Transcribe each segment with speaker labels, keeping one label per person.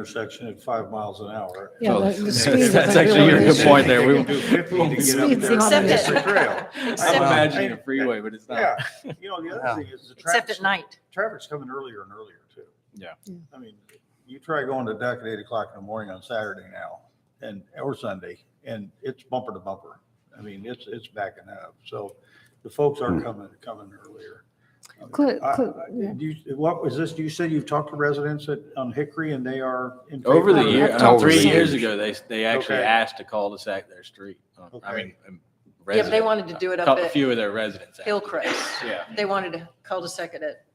Speaker 1: intersection at five miles an hour.
Speaker 2: Yeah,
Speaker 3: Well,
Speaker 2: the- the
Speaker 3: that's-
Speaker 2: speed was
Speaker 3: that's
Speaker 2: like
Speaker 3: actually
Speaker 2: really
Speaker 3: your good
Speaker 2: interesting.
Speaker 3: point there.
Speaker 1: They
Speaker 3: We-
Speaker 1: can do 50 to get up
Speaker 2: Speed's
Speaker 1: there.
Speaker 2: the opposite.
Speaker 1: It's a trail.
Speaker 3: I'm
Speaker 1: Well,
Speaker 4: Except,
Speaker 3: imagining a
Speaker 1: I-
Speaker 3: freeway, but it's not.
Speaker 1: Yeah, you know, the
Speaker 3: Wow.
Speaker 1: other thing is the
Speaker 4: except
Speaker 1: traffic's,
Speaker 4: at night.
Speaker 1: traffic's coming earlier and earlier too.
Speaker 3: Yeah.
Speaker 2: Yeah.
Speaker 1: I mean, you try going to Duck at eight o'clock in the morning on Saturday now and, or Sunday, and it's bumper to bumper. I mean, it's, it's backing up. So the folks are
Speaker 3: Hmm.
Speaker 1: coming, coming earlier.
Speaker 2: Clu-
Speaker 1: I-
Speaker 2: clu-
Speaker 1: I-
Speaker 2: yeah.
Speaker 1: You, what was this? You said you've talked to residents at, on Hickory and they are in favor?
Speaker 3: Over the
Speaker 1: of it?
Speaker 3: year,
Speaker 2: I've
Speaker 3: uh,
Speaker 2: talked
Speaker 3: three
Speaker 2: to some-
Speaker 3: years ago, they, they actually
Speaker 1: Okay.
Speaker 3: asked to cul-de-sac their street. Uh, I
Speaker 1: Okay.
Speaker 3: mean, um,
Speaker 4: Yeah, but they
Speaker 3: resident.
Speaker 4: wanted to do it
Speaker 3: Cou-
Speaker 4: up
Speaker 3: A
Speaker 4: at
Speaker 3: few of their residents. actually.
Speaker 4: Hillcrest.
Speaker 3: Yeah,
Speaker 4: They wanted to cul-de-sac it at,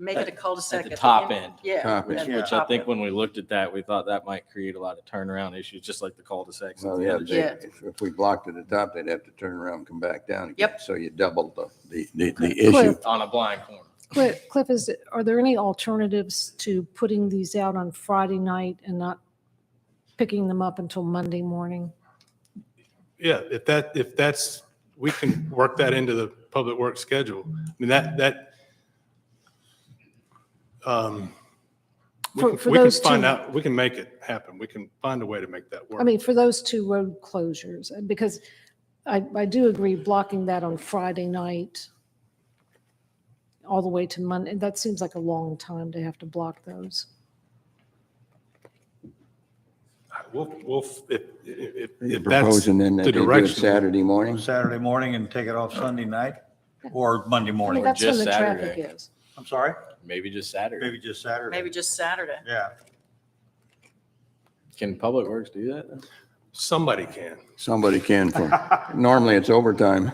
Speaker 4: make it a cul-de-sac.
Speaker 3: At the top end.
Speaker 4: Yeah.
Speaker 5: Top
Speaker 4: at
Speaker 5: end.
Speaker 4: the
Speaker 3: which I
Speaker 4: top
Speaker 3: think
Speaker 4: end.
Speaker 3: when we looked at that, we thought that might create a lot of turnaround issues, just like the cul-de-sacs. and
Speaker 5: Well,
Speaker 3: the
Speaker 5: yeah,
Speaker 3: other
Speaker 5: they-
Speaker 4: Yeah.
Speaker 5: if if we blocked at the top, they'd have to turn around and come back down again.
Speaker 4: Yep.
Speaker 5: So you doubled the, the, the- the
Speaker 2: Cliff,
Speaker 5: issue.
Speaker 3: shit On a blind corner.
Speaker 2: Cliff, Cliff, is, it- are there any alternatives to putting these out on Friday night and not picking them up until Monday morning?
Speaker 6: Yeah, if that, if that's, we can work that into the public work schedule. I mean, that, that. um, we
Speaker 2: For-
Speaker 6: can-
Speaker 2: for
Speaker 6: We can
Speaker 2: those
Speaker 6: find
Speaker 2: two-
Speaker 6: out, we can make it happen. We can find a way to make that work.
Speaker 2: I mean, for those two road closures, and because I, I do agree blocking that on Friday night all the way to Monday, that seems like a long time to have to block those.
Speaker 6: We'll, we'll, if, if,
Speaker 5: You're
Speaker 6: if that's
Speaker 5: proposing then that
Speaker 6: the
Speaker 5: they do it
Speaker 6: direction.
Speaker 5: Saturday
Speaker 1: On
Speaker 5: morning?
Speaker 1: Saturday morning and take it off Sunday night or Monday
Speaker 2: I mean,
Speaker 1: morning?
Speaker 2: that's when
Speaker 3: just
Speaker 2: the traffic
Speaker 3: Saturday.
Speaker 2: is.
Speaker 1: I'm sorry,
Speaker 3: Maybe just Saturday.
Speaker 1: maybe just Saturday.
Speaker 4: Maybe just Saturday.
Speaker 1: Yeah.
Speaker 3: Can Public Works do that? though?
Speaker 6: Somebody can.
Speaker 5: Somebody can for, normally it's overtime.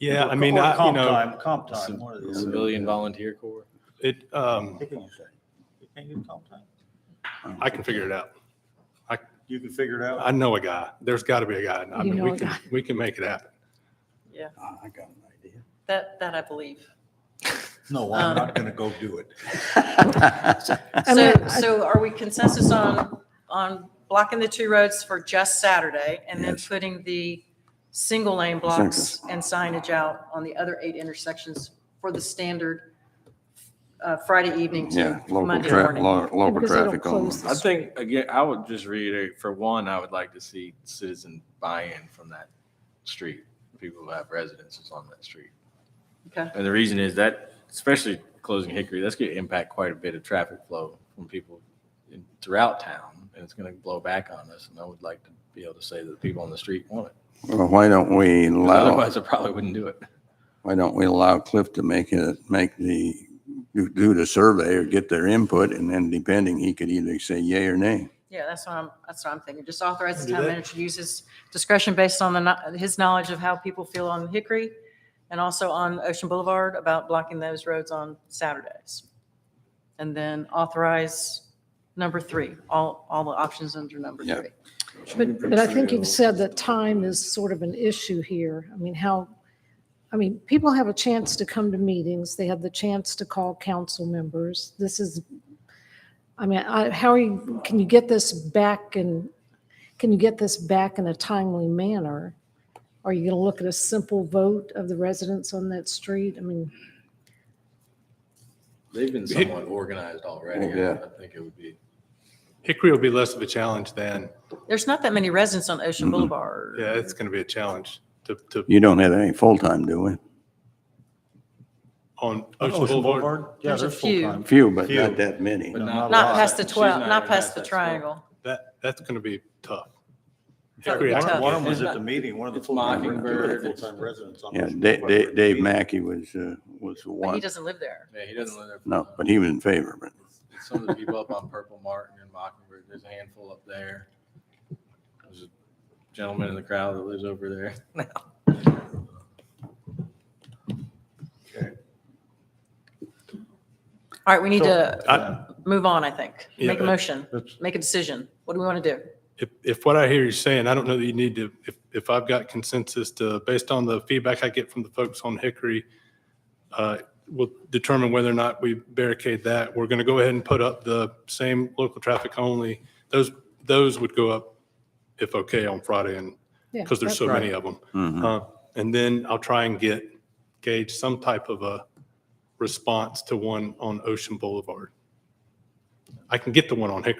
Speaker 6: Yeah, I mean,
Speaker 1: Or
Speaker 6: I, you
Speaker 1: comp
Speaker 6: know,
Speaker 1: time, Comp time, one or the other.
Speaker 3: Civilian volunteer corps?
Speaker 6: it, um,
Speaker 1: What can you say? You can't do comp time?
Speaker 6: I can figure it out.
Speaker 1: You can figure it
Speaker 6: I
Speaker 1: out.
Speaker 6: know a guy. There's got to be a guy. I
Speaker 2: You
Speaker 6: mean,
Speaker 2: know
Speaker 6: we
Speaker 2: a
Speaker 6: can,
Speaker 2: guy.
Speaker 6: we can make it happen.
Speaker 4: Yeah,
Speaker 5: I got an idea.
Speaker 4: that, that I believe.
Speaker 1: No, I'm not gonna go do it.
Speaker 2: I mean,
Speaker 4: So,
Speaker 2: I-
Speaker 4: so are we consensus on, on blocking the two roads for just Saturday and then
Speaker 5: Yes.
Speaker 4: putting the single lane blocks and signage out on the other eight intersections for the standard uh, Friday evening
Speaker 5: Yeah,
Speaker 4: to
Speaker 5: local
Speaker 4: Monday
Speaker 5: tra,
Speaker 4: morning?
Speaker 5: lo- local
Speaker 2: because they don't
Speaker 5: traffic only.
Speaker 2: close the
Speaker 3: I think, again, I would just reiterate, for one, I would like to see citizen buy-in from that street, people who have residences on that street.
Speaker 4: Okay.
Speaker 3: And the reason is that, especially closing Hickory, that's going to impact quite a bit of traffic flow from people in- throughout town, and it's going to blow back on us, and I would like to be able to say that the people on the street want it.
Speaker 5: Well, why don't we
Speaker 3: 'Cause
Speaker 5: allow,
Speaker 3: Otherwise, I probably wouldn't do it.
Speaker 5: why don't we allow Cliff to make it, make the, do- do the survey or get their input and then depending, he could either say yay or nay.
Speaker 4: Yeah, that's what I'm, that's what I'm thinking. Just authorize the
Speaker 6: Do
Speaker 4: town
Speaker 6: that.
Speaker 4: manager to use his discretion based on the, kno- his knowledge of how people feel on Hickory and also on Ocean Boulevard about blocking those roads on Saturdays. And then authorize number three, all, all the options under number
Speaker 5: Yeah.
Speaker 4: three.
Speaker 2: But, but I think you've said that time is sort of an issue here. I mean, how, I mean, people have a chance to come to meetings. They have the chance to call council members. This is, I mean, I, how are you, can you get this back and, can you get this back in a timely manner? Are you going to look at a simple vote of the residents on that street? I mean,
Speaker 3: They've been somewhat organized already. I
Speaker 5: Yeah.
Speaker 3: I think it would be.
Speaker 6: Hickory will be less of a challenge than,
Speaker 4: There's not that many residents on Ocean
Speaker 5: Mhm.
Speaker 3: Mm-hmm.
Speaker 4: Boulevard.
Speaker 6: yeah, it's going to be a challenge to, to,
Speaker 5: You don't have any full-time, do we?
Speaker 6: on Ocean Oh, Boulevard.
Speaker 1: Yeah,
Speaker 4: There's a
Speaker 1: there's
Speaker 4: few.
Speaker 1: full-time.
Speaker 5: Few, but
Speaker 6: Few.
Speaker 5: not that many.
Speaker 3: but
Speaker 1: not a
Speaker 4: Not
Speaker 1: lot.
Speaker 4: past the
Speaker 3: She's
Speaker 4: 12,
Speaker 3: not
Speaker 4: not
Speaker 3: even
Speaker 4: past the
Speaker 3: that small.
Speaker 4: triangle.
Speaker 6: That, that's going to be tough.
Speaker 4: That would
Speaker 6: Hickory,
Speaker 4: be
Speaker 6: I
Speaker 1: One
Speaker 6: don't-
Speaker 4: tough.
Speaker 1: one of them was
Speaker 3: It's
Speaker 1: at the
Speaker 3: not-
Speaker 1: meeting, one of the
Speaker 3: it's
Speaker 1: full-time,
Speaker 3: Mockingbird,
Speaker 1: two of the
Speaker 3: it's-
Speaker 1: full-time residents. on
Speaker 5: Yeah,
Speaker 1: this
Speaker 5: Da-
Speaker 1: board were at
Speaker 5: Da-
Speaker 1: the
Speaker 5: Dave
Speaker 1: meeting.
Speaker 5: Mackey was, uh, was the
Speaker 4: But he
Speaker 5: one.
Speaker 4: doesn't live there.
Speaker 3: Yeah, he doesn't live there.
Speaker 5: No, but he was in favor, but
Speaker 3: It's some of the people up on Purple Martin and Mockingbird, there's a handful up there. There's a gentleman in the crowd that lives over there.
Speaker 4: All right, we need
Speaker 1: So-
Speaker 4: to
Speaker 6: I-
Speaker 4: move on, I think.
Speaker 6: Yeah,
Speaker 4: Make a
Speaker 6: uh,
Speaker 4: motion,
Speaker 1: That's-
Speaker 4: make a decision. What do we want to do?
Speaker 6: If, if what I hear you saying, I don't know that you need to, if, if I've got consensus to, based on the feedback I get from the folks on Hickory, uh, we'll determine whether or not we barricade that. We're going to go ahead and put up the same local traffic only. Those, those would go up, if okay, on Friday and,
Speaker 2: yeah.
Speaker 6: because there's so
Speaker 1: Right.
Speaker 6: many of them. Uh, And then I'll try and get, gauge some type of a response to one on Ocean Boulevard. I can get the one on Hickory.